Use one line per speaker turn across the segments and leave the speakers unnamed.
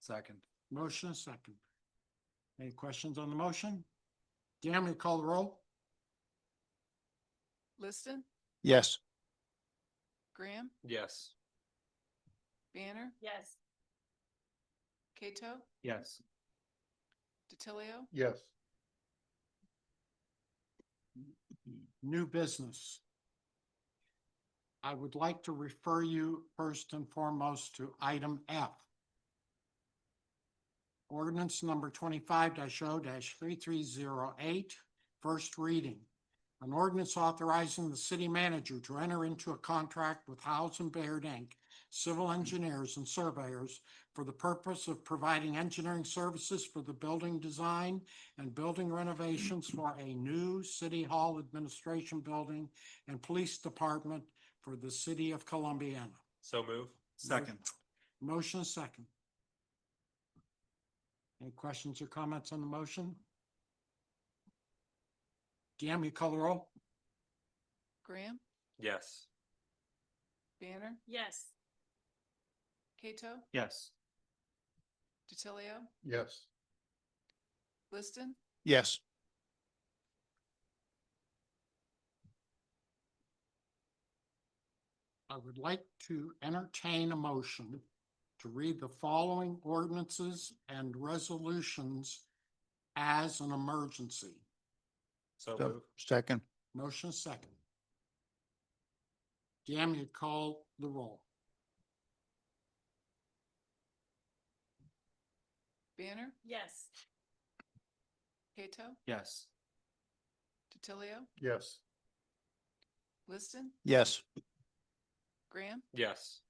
Second.
Motion is second. Any questions on the motion? Dan, will you call the roll?
Liston,
Yes.
Graham,
Yes.
Banner,
yes,
Cato,
Yes.
DiTilio,
yes,
New business. I would like to refer you first and foremost to item F. Ordinance number twenty-five 0 three three zero eight, first reading. An ordinance authorizing the city manager to enter into a contract with Howes and Baird Inc., civil engineers and surveyors for the purpose of providing engineering services for the building design and building renovations for a new City Hall Administration Building and Police Department for the City of Columbiana.
So move. Second.
Motion is second. Any questions or comments on the motion? Deanne, you call the roll?
Graham,
Yes.
Banner,
yes,
Cato,
Yes.
DiTilio,
yes,
Liston,
Yes.
I would like to entertain a motion to read the following ordinances and resolutions as an emergency.
So
So-
move.
Second.
Motion is second. Deanne, you call the roll?
Banner,
yes,
Cato,
Yes.
DiTilio,
yes,
Liston,
Yes.
Graham,
Yes.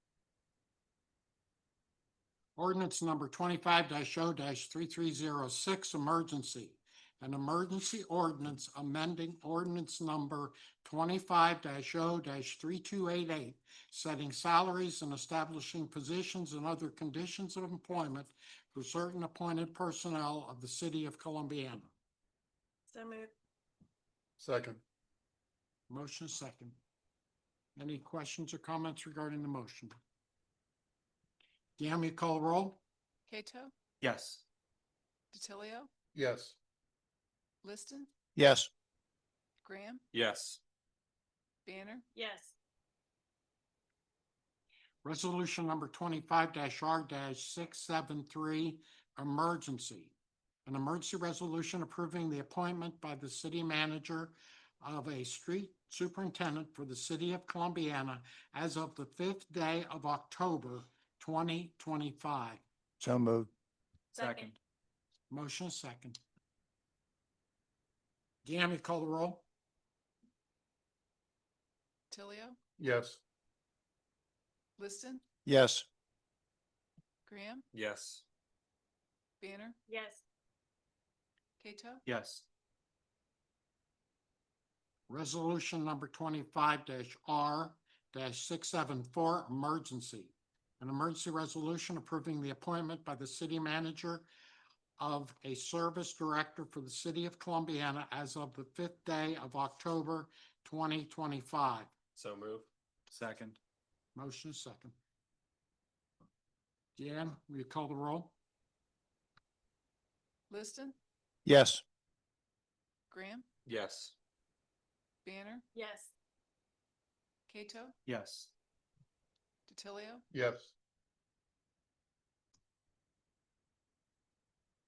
Ordinance number twenty-five 0 three-three-zero-six, emergency. An emergency ordinance amending ordinance number twenty-five 0 three-two-eight-eight, setting salaries and establishing positions and other conditions of employment for certain appointed personnel of the city of Columbiana.
so move,
second,
Motion is second. Any questions or comments regarding the motion? Deanne, will you call the roll?
Cato,
Yes.
DiTilio,
yes,
Liston,
Yes.
Graham,
Yes.
Banner,
yes,
Resolution number twenty-five R six seven three, emergency. An emergency resolution approving the appointment by the city manager of a street superintendent for the city of Columbiana as of the fifth day of October twenty twenty-five.
So moved.
Second.
Motion is second. Deanne, will you call the roll?
DiTilio,
yes,
Liston,
Yes.
Graham,
Yes.
Banner,
yes,
Cato,
Yes.
Resolution number twenty-five R six seven four, emergency. An emergency resolution approving the appointment by the city manager of a service director for the city of Columbiana as of the fifth day of October twenty twenty-five.
So move. Second.
Motion is second. Deanne, will you call the roll?
Liston,
Yes.
Graham,
Yes.
Banner,
yes,
Cato,
Yes.
DiTilio,
yes,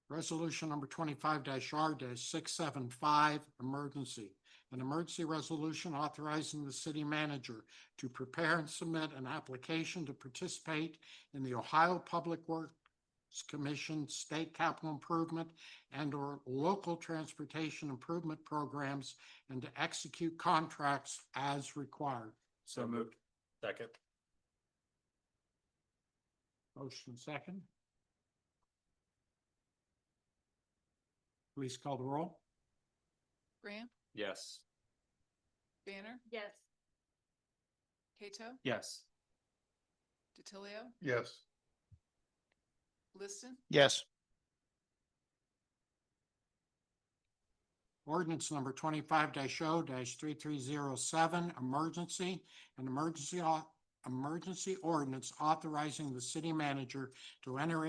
Resolution number twenty-five R six seven five, emergency. An emergency resolution authorizing the city manager to prepare and submit an application to participate in the Ohio Public Works Commission State Capital Improvement and or local transportation improvement programs and to execute contracts as required.
So moved. Second.
Motion second. Please call the roll.
Graham,
Yes.
Banner,
yes,
Cato,
Yes.
DiTilio,
yes,
Liston,
Yes.
Ordinance number twenty-five 0 three-three-zero-seven, emergency, an emergency, au- emergency ordinance authorizing the city manager to enter